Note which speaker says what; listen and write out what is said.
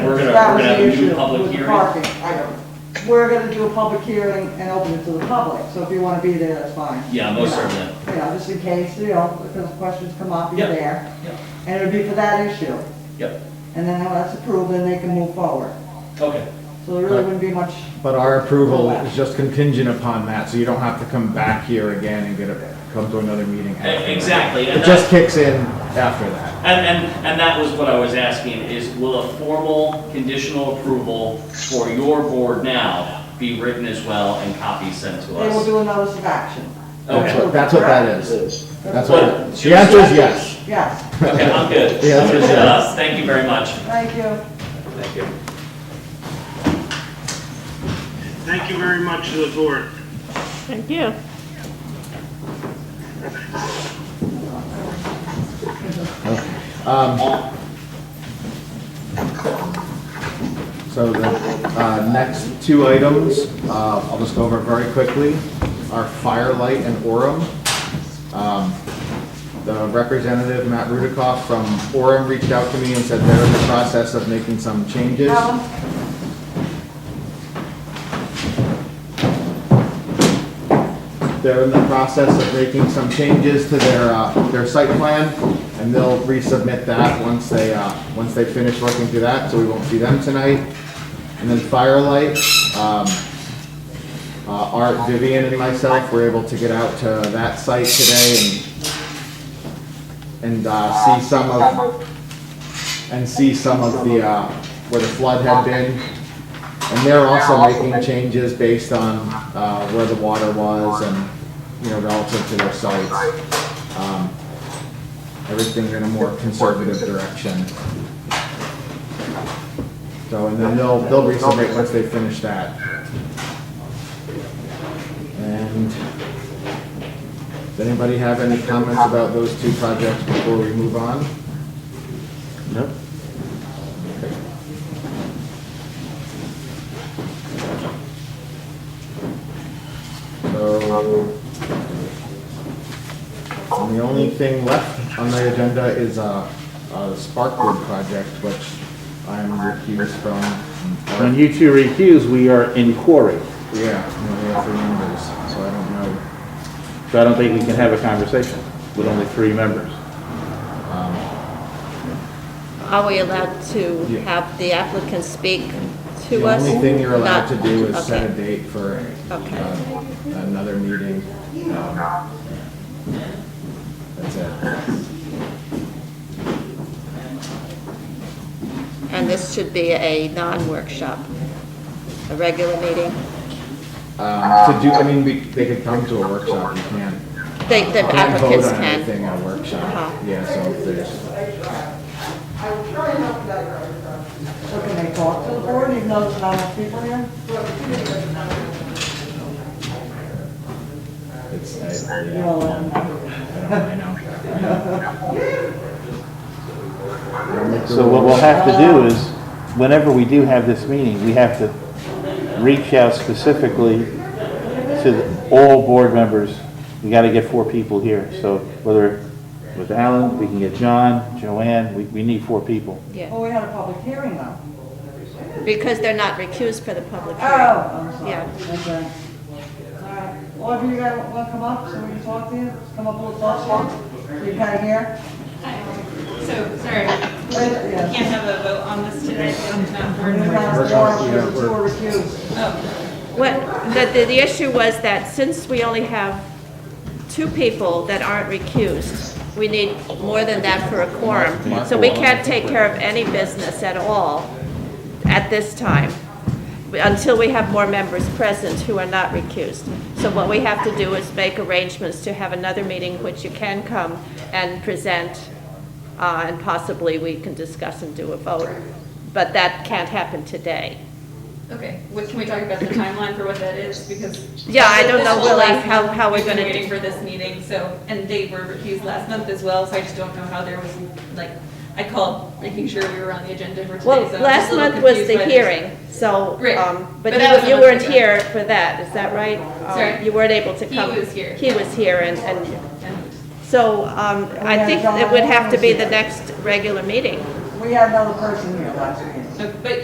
Speaker 1: that
Speaker 2: we're
Speaker 1: was
Speaker 2: gonna have
Speaker 1: the
Speaker 2: a new
Speaker 1: issue
Speaker 2: public
Speaker 1: with the
Speaker 2: hearing?
Speaker 1: parking. I don't, we're gonna do a public hearing and open it to the public, so if you wanna be there, that's fine.
Speaker 2: Yeah, most
Speaker 1: You know,
Speaker 2: certainly.
Speaker 1: You know, just in case, you know, because questions come up, you're
Speaker 2: Yeah.
Speaker 1: there.
Speaker 2: Yeah.
Speaker 1: And it would be for that issue,
Speaker 2: Yep,
Speaker 1: and then when that's approved, then they can move forward.
Speaker 2: okay,
Speaker 1: So there really wouldn't be much,
Speaker 3: But our approval is just contingent upon that, so you don't have to come back here again and get a, come to another meeting. after that.
Speaker 2: E, exactly, and that-
Speaker 3: It just kicks in after that.
Speaker 2: And, and, and that was what I was asking, is will a formal conditional approval for your board now be written as well and copies sent to
Speaker 1: they will
Speaker 2: us?
Speaker 1: do a notice of action.
Speaker 3: That's
Speaker 2: Okay,
Speaker 3: what, that's what that is. That's what,
Speaker 2: But-
Speaker 3: it- the answer is yes.
Speaker 1: Yes,
Speaker 2: okay, I'm good.
Speaker 3: Yeah,
Speaker 2: I'm good
Speaker 3: that's what
Speaker 2: with
Speaker 3: it
Speaker 2: us. Thank you very much.
Speaker 1: thank you.
Speaker 2: Thank you.
Speaker 4: Thank you very much to the board.
Speaker 5: Thank you.
Speaker 3: So the uh, next two items, uh, I'll just go over very quickly, are Firelight and Orem. Um, The representative, Matt Rudikoff from Orem, reached out to me and said they're in the process of making some changes.
Speaker 1: Alan?
Speaker 3: They're in the process of making some changes to their, uh, their site plan, and they'll resubmit that once they, uh, once they finish working through that, so we won't see them tonight. And then Firelight, um, uh, Art, Vivian, and myself were able to get out to that site today and, and uh, see some of, and see some of the, uh, where the flood had been, and they're also making changes based on uh, where the water was and, you know, relative to their sites. Um, Everything in a more conservative direction. So, and then they'll, they'll resubmit once they finish that. And does anybody have any comments about those two projects before we move on? No. So, and the only thing left on the agenda is uh, uh, the Sparkwood project, which I'm recused from.
Speaker 6: When you two recuse, we are in quarry,
Speaker 3: Yeah, no, we have three members, so I don't know.
Speaker 6: so I don't think we can have a conversation with only three members.
Speaker 5: Are we allowed to
Speaker 3: Yeah.
Speaker 5: have the applicant speak to
Speaker 3: The
Speaker 5: us?
Speaker 3: only thing you're allowed to
Speaker 5: Not-
Speaker 3: do is set a
Speaker 5: okay.
Speaker 3: date for
Speaker 5: Okay.
Speaker 3: uh, another meeting. um, That's it.
Speaker 5: And this should be a non-workshop, a regular meeting?
Speaker 3: Um, To do, I mean, we- they could come to a workshop, you can't.
Speaker 5: They- The
Speaker 3: can't vote
Speaker 5: applicants
Speaker 3: on
Speaker 5: can.
Speaker 3: anything at a
Speaker 5: Uh-huh.
Speaker 3: workshop, yeah, so if there's.
Speaker 1: So can they talk to the board, even though there's not enough people here?
Speaker 3: It's, I,
Speaker 1: You
Speaker 3: yeah,
Speaker 1: know, and-
Speaker 3: I know.
Speaker 6: So what we'll have to do is, whenever we do have this meeting, we have to reach out specifically to the- all board members. We gotta get four people here, so whether with Alan, we can get John, Joanne, we, we need four people.
Speaker 5: Yeah,
Speaker 1: Well, we had a public hearing though.
Speaker 5: because they're not recused for the public
Speaker 1: Oh,
Speaker 5: hearing.
Speaker 1: I'm sorry.
Speaker 5: Yeah.
Speaker 1: Okay. All right. Well, if you guys want to come up, so we can talk to you, come up a little closer, so you kind of hear.
Speaker 7: So, sorry, we
Speaker 1: Yeah.
Speaker 7: can't have a vote on this today, so I'm not
Speaker 1: We're
Speaker 7: board
Speaker 1: gonna
Speaker 7: member.
Speaker 1: ask Laura if she's a two or recused.
Speaker 7: Oh,
Speaker 5: What, the, the, the issue was that since we only have two people that aren't recused, we need more than that for a quorum. So we can't take care of any business at all at this time, until we have more members present who are not recused. So what we have to do is make arrangements to have another meeting, which you can come and present, uh, and possibly we can discuss and do a vote. But that can't happen today.
Speaker 7: okay, what, can we talk about the timeline for what that is, because.
Speaker 5: Yeah, I don't
Speaker 7: this
Speaker 5: know
Speaker 7: whole
Speaker 5: really
Speaker 7: last
Speaker 5: how-
Speaker 7: month,
Speaker 5: how we're
Speaker 7: we've been
Speaker 5: gonna
Speaker 7: waiting
Speaker 5: do-
Speaker 7: for this meeting, so, and they were refused last month as well, so I just don't know how there was, like, I called, making sure we were on the agenda for today, so.
Speaker 5: Well,
Speaker 7: uh, I'm just a
Speaker 5: last
Speaker 7: little
Speaker 5: month was
Speaker 7: confused
Speaker 5: the
Speaker 7: by this.
Speaker 5: hearing, so,
Speaker 7: Right.
Speaker 5: um,
Speaker 7: But
Speaker 5: but
Speaker 7: that was
Speaker 5: you
Speaker 7: a
Speaker 5: you
Speaker 7: month
Speaker 5: weren't
Speaker 7: ago.
Speaker 5: here for that, is that right? Um,
Speaker 7: Sorry.
Speaker 5: You weren't able to
Speaker 7: He
Speaker 5: come.
Speaker 7: was here.
Speaker 5: He was here, and, and,
Speaker 7: And-
Speaker 5: so, um, I
Speaker 1: had
Speaker 5: think
Speaker 1: John
Speaker 5: it would have to be the
Speaker 1: Anderson.
Speaker 5: next regular meeting.
Speaker 1: We had another person here last meeting.
Speaker 7: so- But